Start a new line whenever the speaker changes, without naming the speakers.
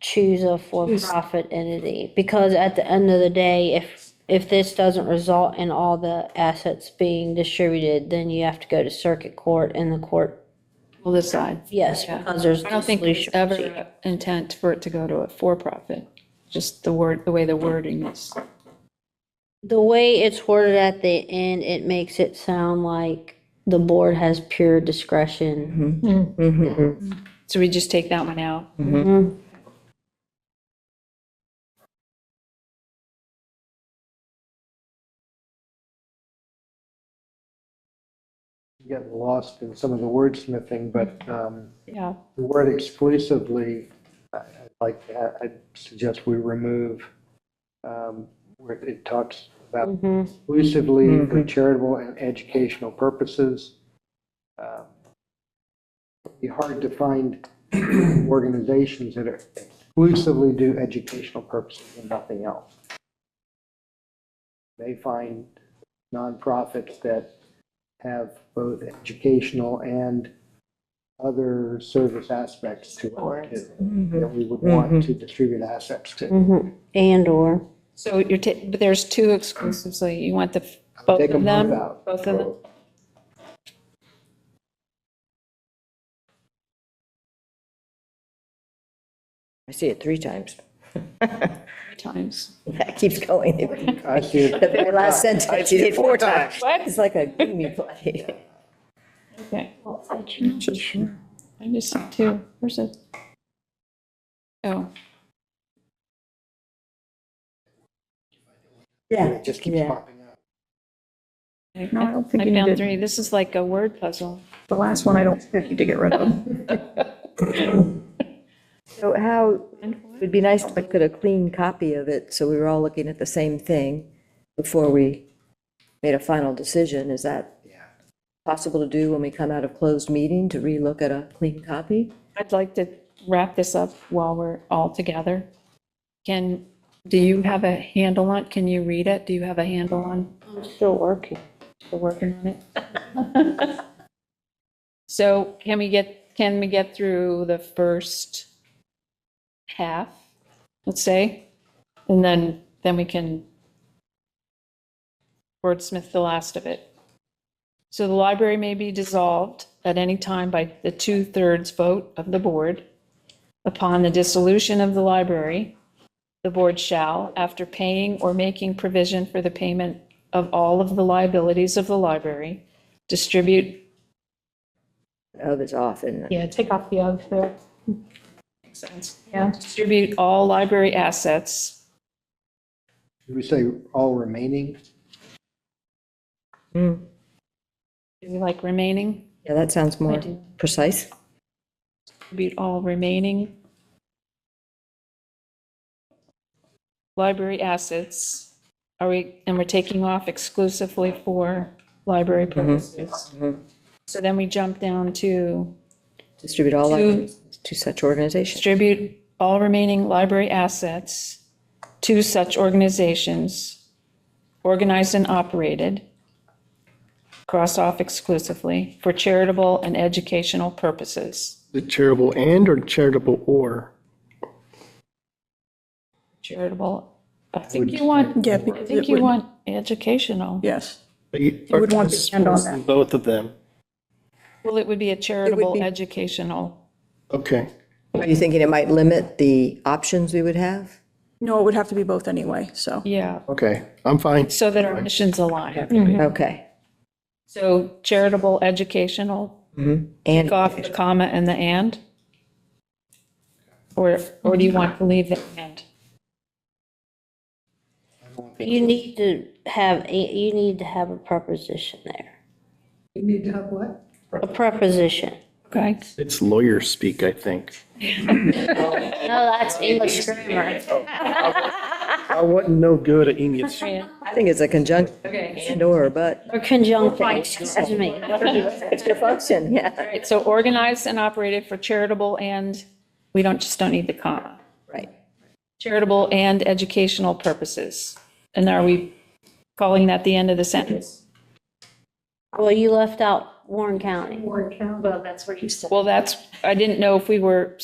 choose a for-profit entity, because at the end of the day, if, if this doesn't result in all the assets being distributed, then you have to go to circuit court and the court,
We'll decide.
yes,
Yeah.
because there's.
I don't think there's
dissolution proceeding.
ever intent for it to go to a for-profit, just the word, the way the wording is.
The way it's worded at the end, it makes it sound like the board has pure discretion.
So we just take that one out.
Mhm.
getting lost in some of the wordsmithing, but um,
Yeah.
the word exclusively, I- I'd like, I- I'd suggest we remove um, where it talks about
Mhm.
exclusively
Mm-hmm.
for charitable and educational purposes. Um, It'd Be hard to find organizations that are exclusively do educational purposes and nothing else. They find nonprofits that have both educational and other service aspects to it too,
Mm-hmm.
that we would want to distribute assets to.
Mhm. And/or,
So you're, ta- but there's two exclusively, you want the,
I would
both
take
of them?
both out.
Both of them?
I see it three times.
Three times.
That keeps going.
I see
The
it.
very last sentence, you did four times.
What?
It's like a gloomy play.
Okay. I just see two, where's it? Oh,
Yeah.
It just keeps
Yeah.
popping up.
I
No, I
I
don't think you
found
did.
three, this is like a word puzzle.
The last one I don't need to get rid of.
So how, it'd be nice to get a clean copy of it, so we were all looking at the same thing before we made a final decision. Is that
Yeah.
possible to do when we come out of closed meeting, to relook at a clean copy?
I'd like to wrap this up while we're all together. Can, do you have a handle on, can you read it? Do you have a handle on,
I'm still working.
for working on it? So can we get, can we get through the first half, let's say? And then, then we can wordsmith the last of it. So the library may be dissolved at any time by the two-thirds vote of the board. Upon the dissolution of the library, the board shall, after paying or making provision for the payment of all of the liabilities of the library, distribute.
Of is off, isn't it?
Yeah, take off the of there. Makes sense. Yeah. Distribute all library assets.
Did we say all remaining?
Do you like remaining?
Mm. Yeah, that sounds
I
more
do.
precise.
Distribute all remaining library assets. Are we, and we're taking off exclusively for library purposes. So then we jump down to
Distribute all
To-
libraries to such organizations.
distribute all remaining library assets to such organizations, organized and operated, cross off exclusively, for charitable and educational purposes.
The charitable and or charitable or?
Charitable, I think you want,
Yeah,
I think you want educational.
Yes.
You
would want the and on that.
Both of them.
Well, it would be a charitable
be-
educational.
Okay.
Are you thinking it might limit the options we would have?
No, it would have to be both anyway, so.
Yeah,
Okay. I'm fine.
so that our missions align.
Okay.
So charitable, educational,
And,
off the comma and the and? Or, or do you want to leave the and?
You need to have, a you need to have a preposition there. You need to have what? A preposition.
Okay,
It's lawyer speak, I think.
No, that's English grammar.
I wasn't no good at English.
I think it's a conjunction and or, but
Or conjunction, excuse me.
extra function, yeah.
Right, so organized and operated for charitable and, we don't, just don't need the comma.
Right.
Charitable and educational purposes. And are we calling that the end of the sentence?
Well, you left out Warren County.
Well, that's, I didn't know if we were